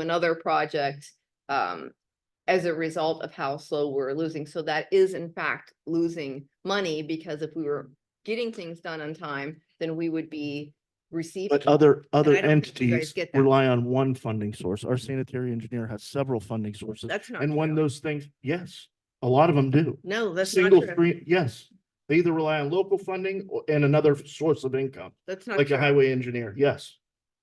another project um as a result of how slow we're losing. So that is in fact losing money because if we were getting things done on time, then we would be receiving. But other, other I don't think you guys entities get that. rely on one funding source. Our sanitary engineer has several funding sources. That's not. And when true. those things, yes, a lot of them do. No, that's not Single true. three, yes. They either rely on local funding or- and another source of income, That's not. like a true. highway engineer. Yes,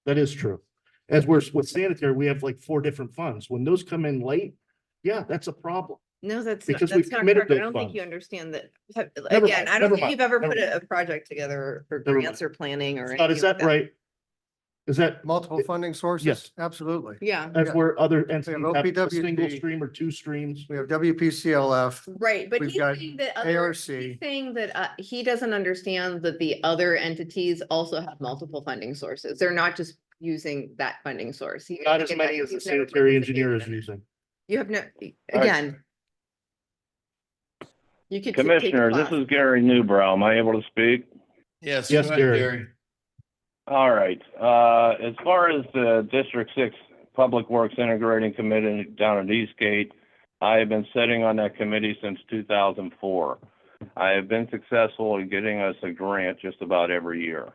that is true. As we're with sanitary, we have like four different funds. When those come in late, yeah, that's a problem. No, that's not, because we've that's not committed correct. I don't those think you funds. understand that. Never Again, mind, I don't never think mind, you've ever never put a, a project together for Never grants or planning or. Scott, is anything like that right? Is that Multiple funding sources? yes. Absolutely. Yeah, as Yeah. where other entities have a single OPWP. stream or two streams? We have WPCLF, right, but We've he's got saying that. other- He's ARC. saying that uh, he doesn't understand that the other entities also have multiple funding sources. They're not just using that funding source. He Not doesn't as get that. many as the He's never sanitary engineer is participated in it. using. You have no, All right. again. You could. t- take a Commissioner, this class. is Gary Newbrow. Am I able to speak? Yes. Yes, go ahead, Gary. All right. Uh, as far as the District Six Public Works Integrating Committee down at Eastgate, I have been sitting on that committee since two thousand four. I have been successful in getting us a grant just about every year.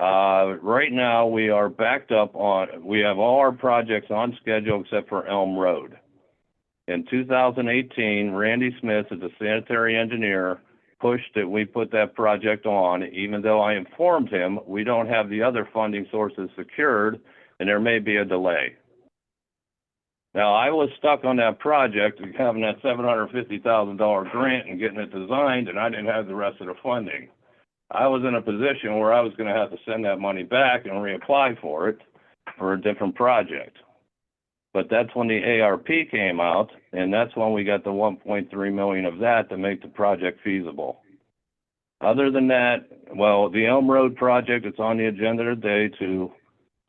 Uh, right now, we are backed up on, we have all our projects on schedule except for Elm Road. In two thousand eighteen, Randy Smith is a sanitary engineer push that we put that project on, even though I informed him we don't have the other funding sources secured and there may be a delay. Now, I was stuck on that project and having that seven hundred fifty thousand dollar grant and getting it designed and I didn't have the rest of the funding. I was in a position where I was gonna have to send that money back and reapply for it for a different project. But that's when the ARP came out, and that's when we got the one point three million of that to make the project feasible. Other than that, well, the Elm Road project, it's on the agenda today to,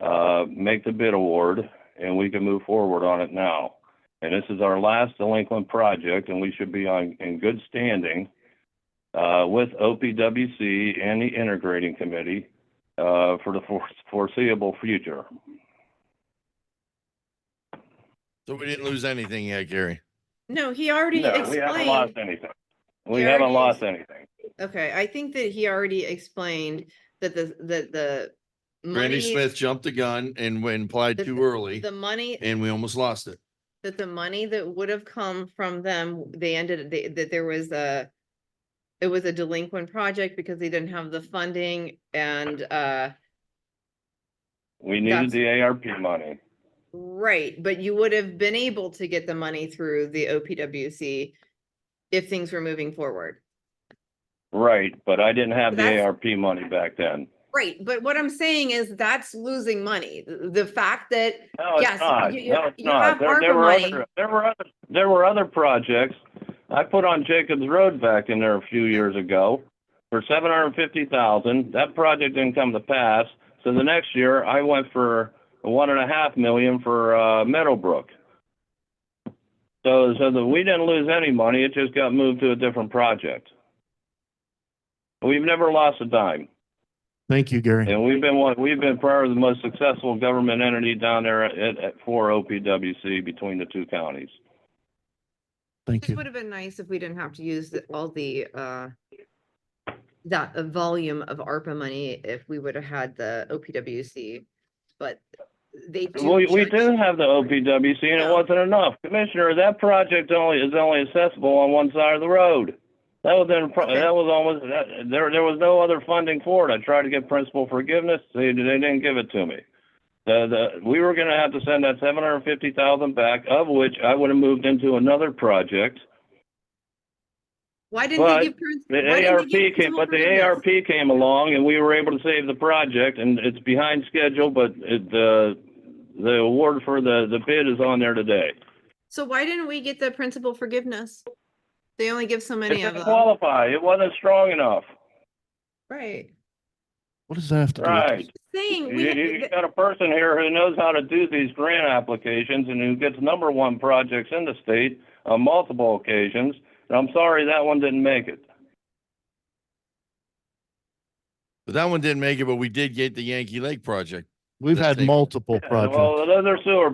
uh, make the bid award, and we can move forward on it now. And this is our last delinquent project, and we should be on, in good standing, uh, with OPWC and the integrating committee, uh, for the fore- foreseeable future. So we didn't lose anything yet, Gary. No, he already No, we haven't lost explained. anything. We There it haven't is. lost anything. Okay, I think that he already explained that the, that the. Randy money- Smith jumped the gun and went applied The- too early The money, and we almost lost it. that the money that would have come from them, they ended, they- that there was a. It was a delinquent project because they didn't have the funding and, uh, We That's- needed the ARP money. right, but you would have been able to get the money through the OPWC. If things were moving forward. Right, but I didn't have the That's- ARP money back then. Right, but what I'm saying is that's losing money. The the fact that No, it's Yes, not. you- you- No, it's you have not. There, ARPA there were money. other, there were other, there were other projects. I put on Jacobs Road back in there a few years ago for seven hundred and fifty thousand. That project didn't come to pass. So the next year I went for one and a half million for, uh, Meadowbrook. So, so that we didn't lose any money. It just got moved to a different project. We've never lost a dime. Thank you, Gary. And we've been one, we've been probably the most successful government entity down there at, at, for OPWC between the two counties. Thank It you. would have been nice if we didn't have to use the- all the, uh, that uh, volume of ARPA money if we would have had the OPWC, but they. do We, we judge- do have the OPWC and it Yeah. wasn't enough. Commissioner, that project only, is only accessible on one side of the road. That was, in pro- Okay. that was almost, that, there, there was no other funding for it. I tried to get principal forgiveness. They, they didn't give it to me. The, the, we were gonna have to send that seven hundred and fifty thousand back, of which I would have moved into another project. Why didn't but they give? parents- why didn't The they ARP give came, principal but the forgiveness? ARP came along and we were able to save the project and it's behind schedule, but it, the, the award for the, the bid is on there today. So why didn't we get the principal forgiveness? They only give so It many of them, didn't qualify. It wasn't strong enough. right? What does that have to do? with this? Right. Saying, You, we had- you th- got a person here who knows how to do these grant applications and who gets number one projects in the state on multiple occasions. And I'm sorry that one didn't make it. But that one didn't make it, but we did get the Yankee Lake project. We've had Let's take- multiple Yeah, projects. Well, another sewer